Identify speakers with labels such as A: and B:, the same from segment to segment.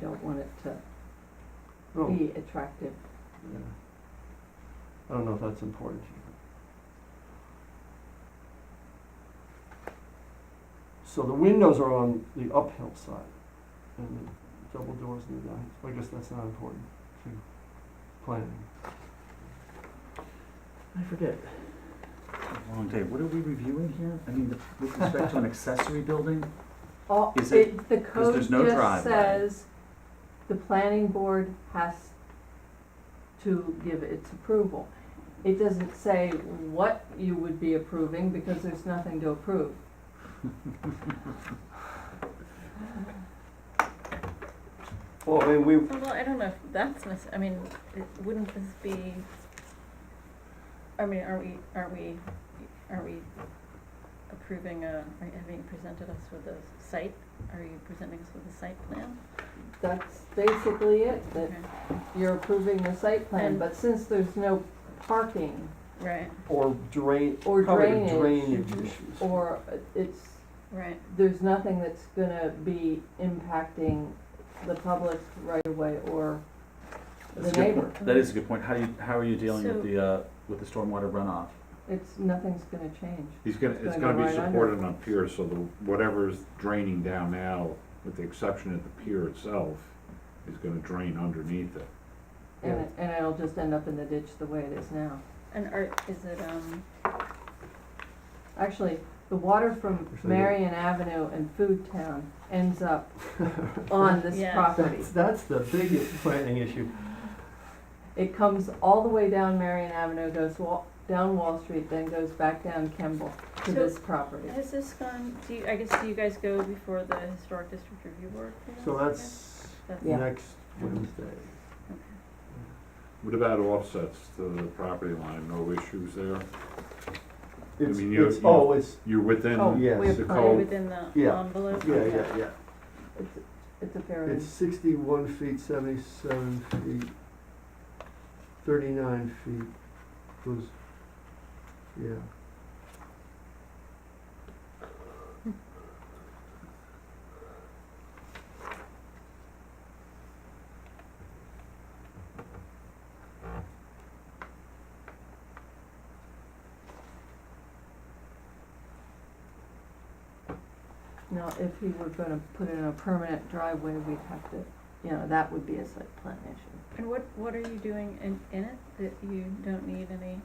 A: don't want it to
B: Oh,
A: be attractive.
B: yeah. I don't know if that's important to you. So the windows are on the uphill side and the double doors in the down, I guess that's not important to planning. I forget.
C: Long day. What are we reviewing here? I mean, the- with respect to an accessory building?
A: All,
C: Is
A: it, the code
C: there's no
A: just
C: driveway.
A: says the planning board has to give its approval. It doesn't say what you would be approving because there's nothing to approve.
B: Well, I mean, we,
D: Well, I don't know if that's necess, I mean, it- wouldn't this be, I mean, are we, are we, are we approving, uh, are you- have you presented us with a site? Are you presenting us with a site plan?
A: That's basically it, that
D: Okay.
A: you're approving the site plan,
D: And-
A: but since there's no parking
D: Right,
B: or drain,
A: Or
B: probably the
A: drainage.
B: drainage
D: Mhm.
B: issues.
A: or it's,
D: right,
A: there's nothing that's gonna be impacting the public's right of way or the
C: That's a good
A: neighbor.
C: point. That is a good point. How do you, how are you dealing
D: So-
C: with the, uh, with the stormwater runoff?
A: It's, nothing's gonna change.
E: He's gonna,
A: It's
E: it's
A: gonna go
E: gonna be
A: right under.
E: supported on piers, so the, whatever's draining down now, with the exception of the pier itself, is gonna drain underneath it.
A: And, it- and it'll just end up in the ditch the way it is now.
D: and are, is it, um,
A: Actually, the water from
B: Actually, yeah.
A: Marion Avenue and Food Town ends up on this
D: Yeah.
A: property.
B: That's, that's the biggest planning issue.
A: It comes all the way down Marion Avenue, goes wa- down Wall Street, then goes back down Kemble to
D: So-
A: this property.
D: has this gone, do you, I guess, do you guys go before the historic district review board? for this
B: So
D: again?
B: that's
D: That's-
A: Yeah.
B: next Wednesday.
E: What about offsets to the property line, no issues there?
B: It's,
E: mean, you-
B: it's,
E: you-
B: oh, it's,
E: You're within,
A: Oh,
B: yes.
A: we
E: the
A: have
D: Are you
E: code.
A: planning,
D: within the
B: Yeah.
D: envelope?
B: yeah,
D: Okay.
B: yeah, yeah.
A: it's, it's a fair,
B: It's sixty-one feet, seventy-seven feet, thirty-nine feet, was, yeah.
A: now, if he were gonna put in a permanent driveway, we'd have to, you know, that would be a site plan issue.
D: And what, what are you doing in, in it that you don't need any,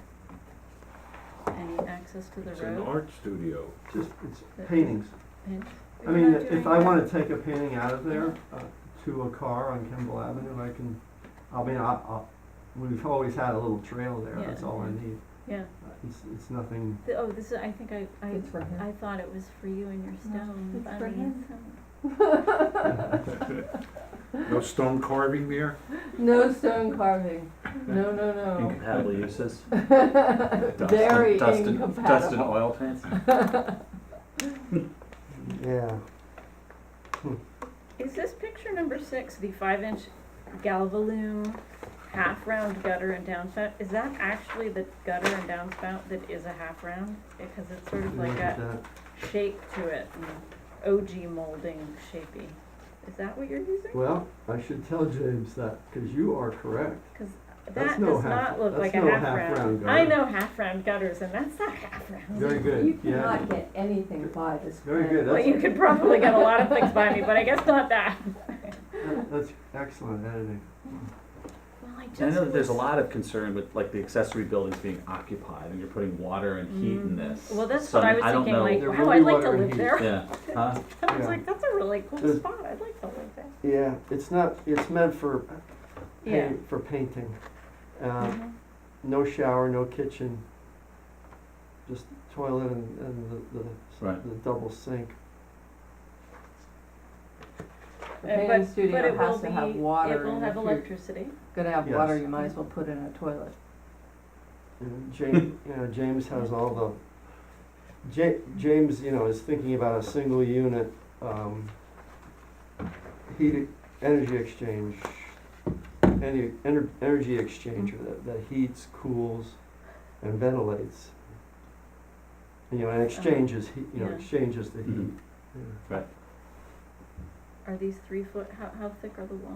D: any access to the
E: it's an
D: road?
E: art studio.
B: Just, it's
D: That-
B: paintings.
D: And
B: I
D: you're
B: mean,
D: not doing
B: if I
D: that-
B: wanna take a painting out of there, uh, to a car on Kimball Avenue, I can, I mean, I, I, we've always had a little trail there,
D: Yeah.
B: that's all I need.
D: Yeah,
B: Uh, It's, it's nothing,
D: The- oh, this is, I think I, I,
A: It's for him.
D: I thought it was for you and your stone,
A: it's
D: I
A: for
D: mean,
A: him.
D: some-
E: No stone carving there?
A: No stone carving, no, no,
D: Oh.
A: no.
C: Incompatible uses?
A: Very
C: Dust and- dust and- Dust and
A: incompatible.
C: oil paints?
B: yeah.
D: Is this picture number six, the five inch galvalume half round gutter and downspout, is that actually the gutter and downspout that is a half round? Because it's sort of like
B: Look at
D: a
B: that.
D: shape to it, and OG molding shapey. Is that what you're using?
B: Well, I should tell James that, cause you are correct.
D: Cause
B: That's
D: that
B: no
D: does
B: half-
D: not look
B: that's
D: like a
B: no
D: half round.
B: half-round gutter.
D: I know half round gutters and that's not half round.
B: Very
A: You
B: good, yeah.
A: cannot get anything by this
B: Very
A: plan.
B: good,
D: Well,
B: that's-
D: you could probably get a lot of things by me, but I guess not that.
B: That- That's excellent editing.
D: Well, I just.
C: And I know that there's a lot of concern with like the accessory buildings being occupied and you're putting water and heat in this.
D: Mm. Well, that's
C: So,
D: what I
C: mean,
D: was
C: don't
D: thinking,
C: know-
D: like,
B: There
D: wow,
B: will
D: I'd
B: be
D: like to
B: water and
D: live
B: heat.
D: there.
C: Yeah, huh?
D: I was
B: Yeah.
D: like, that's a really cool
B: There's-
D: spot, I'd like to live there.
B: Yeah, it's not, it's meant for,
D: Yeah.
B: paint- for painting. Uh,
D: Mhm.
B: No shower, no kitchen, just toilet and, and the, the,
C: Right.
B: the double sink.
A: The
D: Uh,
A: painting
D: but- but
A: studio
D: it
A: has
D: will
A: to have
D: be-
A: water
D: It will
A: in it.
D: have
A: If you're
D: electricity.
A: Gonna have
B: Yes.
A: water, you might as well put in a toilet.
B: James, you know, James has all the, Ja- James, you know, is thinking about a single unit, um, heat, e- energy exchange, any, ener- energy exchanger that, that heats, cools, and ventilates. You know, and exchanges, heat. you know,
D: Yeah.
B: exchanges the heat.
C: Mhm.
B: Yeah.
D: Are these three foot, how, how thick are the walls?